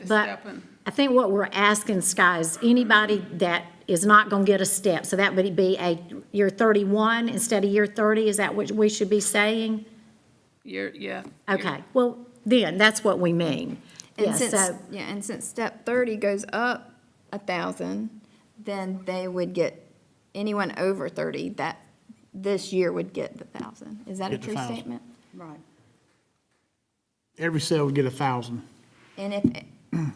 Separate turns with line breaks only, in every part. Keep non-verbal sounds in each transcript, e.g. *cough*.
the
But
step and,
I think what we're asking, Sky, is anybody that is not gonna get a step, so that would be a year thirty-one instead of year thirty, is that what we should be saying?
you're, yeah. you're-
Okay, well, then, that's what we mean. Yeah,
And since,
so,
yeah, and since step thirty goes up a thousand, then they would get, anyone over thirty, that, this year would get the thousand. Is that a
Get the
true
1,000.
statement?
Right.
Every sale would get a thousand.
And
*clears throat*
if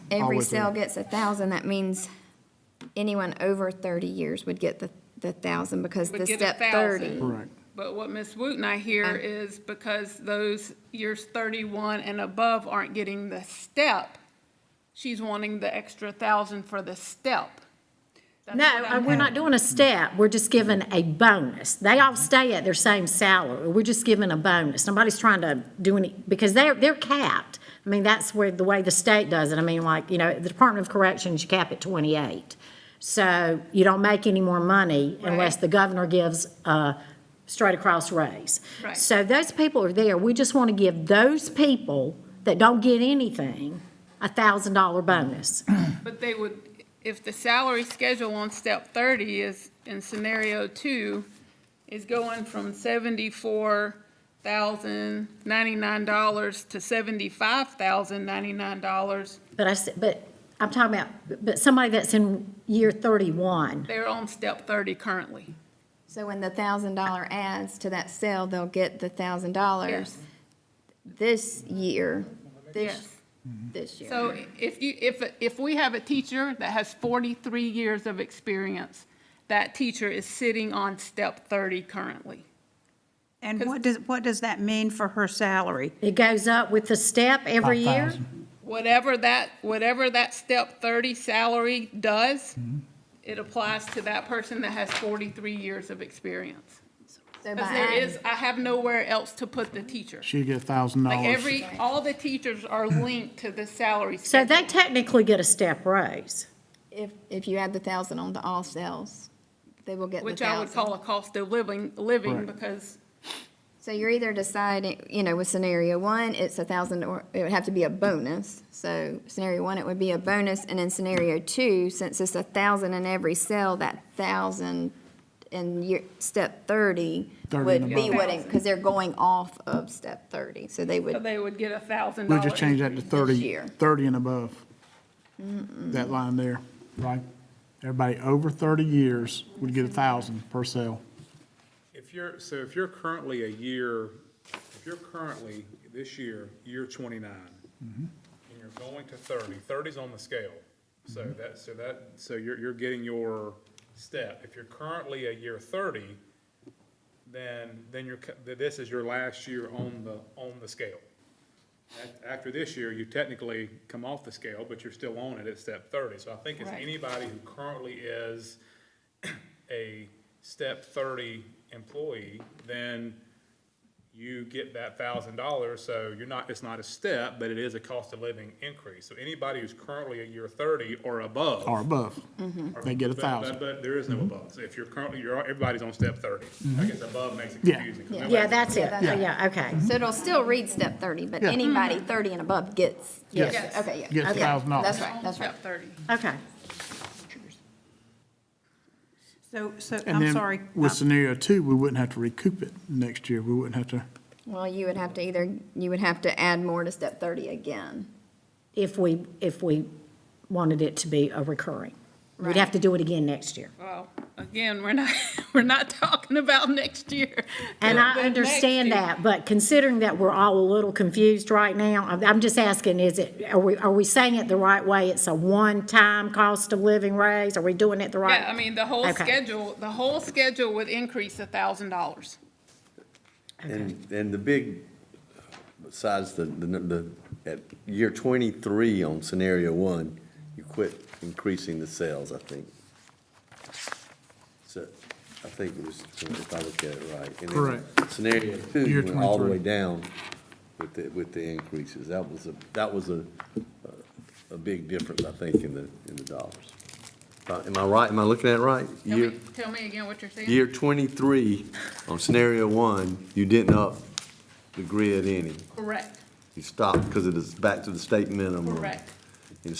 every
Always
sale
will.
gets a thousand, that means anyone over thirty years would get the, the thousand because
Would
the
get a
step
thousand.
thirty.
Correct.
But what Ms. Wooten I hear is because those years thirty-one and above aren't getting the step, she's wanting the extra thousand for the step. That's
no,
what
uh,
I'm-
we're not doing a step, we're just giving a bonus. They all stay at their same salary, we're just giving a bonus. Nobody's trying to do any, because they're, they're capped. I mean, that's where, the way the state does it, I mean, like, you know, the Department of Corrections, you cap at twenty-eight. So you don't make any more money unless
Right.
the governor gives a straight across raise.
Right.
So those people are there, we just want to give those people that don't get anything a thousand dollar bonus.
But they would, if the salary schedule on step thirty is, in scenario two, is going from seventy-four thousand ninety-nine dollars to seventy-five thousand ninety-nine dollars,
But I said, but I'm talking about, but somebody that's in year thirty-one,
they're on step thirty currently.
So when the thousand dollar adds to that sale, they'll get the thousand dollars this year,
Yes.
this, this year.
So if you, if, if we have a teacher that has 43 years of experience, that teacher is sitting on step 30 currently.
And what does, what does that mean for her salary?
it goes up with the step every year?
5,000.
Whatever that, whatever that step 30 salary does,
Mm-hmm.
it applies to that person that has 43 years of experience.
So by
Because there
adding-
is, I have nowhere else to put the teacher.
She'd get a thousand
Like
dollars.
every, all the teachers are linked to the salary
So
schedule.
they technically get a step raise.
If, if you add the thousand on to all sales, they will get the
Which I would
thousand.
call a cost of living, living
Right.
because,
So you're either deciding, you know, with scenario one, it's a thousand, or it would have to be a bonus. So scenario one, it would be a bonus, and in scenario two, since it's a thousand in every sale, that thousand in your, step thirty
30
would
and
be
above.
what, because they're going off of step thirty, so they would,
they would get a thousand
We'll
dollars.
just change that to thirty,
year.
thirty and above. That line there, right? Everybody over thirty years would get a thousand per sale.
If you're, so if you're currently a year, if you're currently, this year, year twenty-nine, and you're going to 30, 30's on the scale. So that, so that, so you're, you're getting your step. If you're currently a year thirty, then, then you're, cu- th- this is your last year on the, on the scale. A- After this year, you technically come off the scale, but you're still on it at step thirty. So I think it's
Right.
anybody who currently is *clears throat* a step thirty employee, then you get that thousand dollars, so you're not, it's not a step, but it is a cost of living increase. So anybody who's currently a year thirty or above.
or above. They get a
But- Mm-hmm. But,
thousand. Mm-hmm.
but there is no above. So if you're currently, you're, everybody's on step thirty. I guess above makes it
Yeah.
confusing. 'cause
Yeah,
nobody's-
that's it. Yeah, okay.
so it'll still read step thirty, but
Mm-hmm.
anybody thirty and above gets.
Yes.
Okay, yeah.
Gets
okay.
$1,000.
That's right, that's right.
Step 30.
Okay.
So, so,
And
I'm
then
sorry.
With
uh,
scenario two, we wouldn't have to recoup it next year. We wouldn't have to,
Well, you would have to either, you would have to add more to step thirty again.
If we, if we wanted it to be a recurring, we'd have
Right.
to do it again next year.
Well, again, we're not, *laughs* we're not talking about next year.
And I
*laughs* The next
understand
year.
that, but considering that we're all a little confused right now, I'm, I'm just asking, is it, are we, are we saying it the right way? It's a one-time cost of living raise? Are we doing it the right?
Yeah, I mean, the whole
Okay.
schedule, the whole schedule would increase a thousand dollars.
And, and the big, besides the, the, the, at year twenty-three on scenario one, you quit increasing the sales, I think. So, I think it was, if I look at it right. And then
Correct.
Scenario
Year
two went all the
23.
way down with the, with the increases. That was a, that was a, a, a big difference, I think, in the, in the dollars. Uh, Am I right? Am I looking at it right?
Tell
Year-
me, tell me again what you're saying.
year twenty-three, on scenario one, you didn't up the grid any.
Correct,
You stopped because it is back to the state minimum.
correct.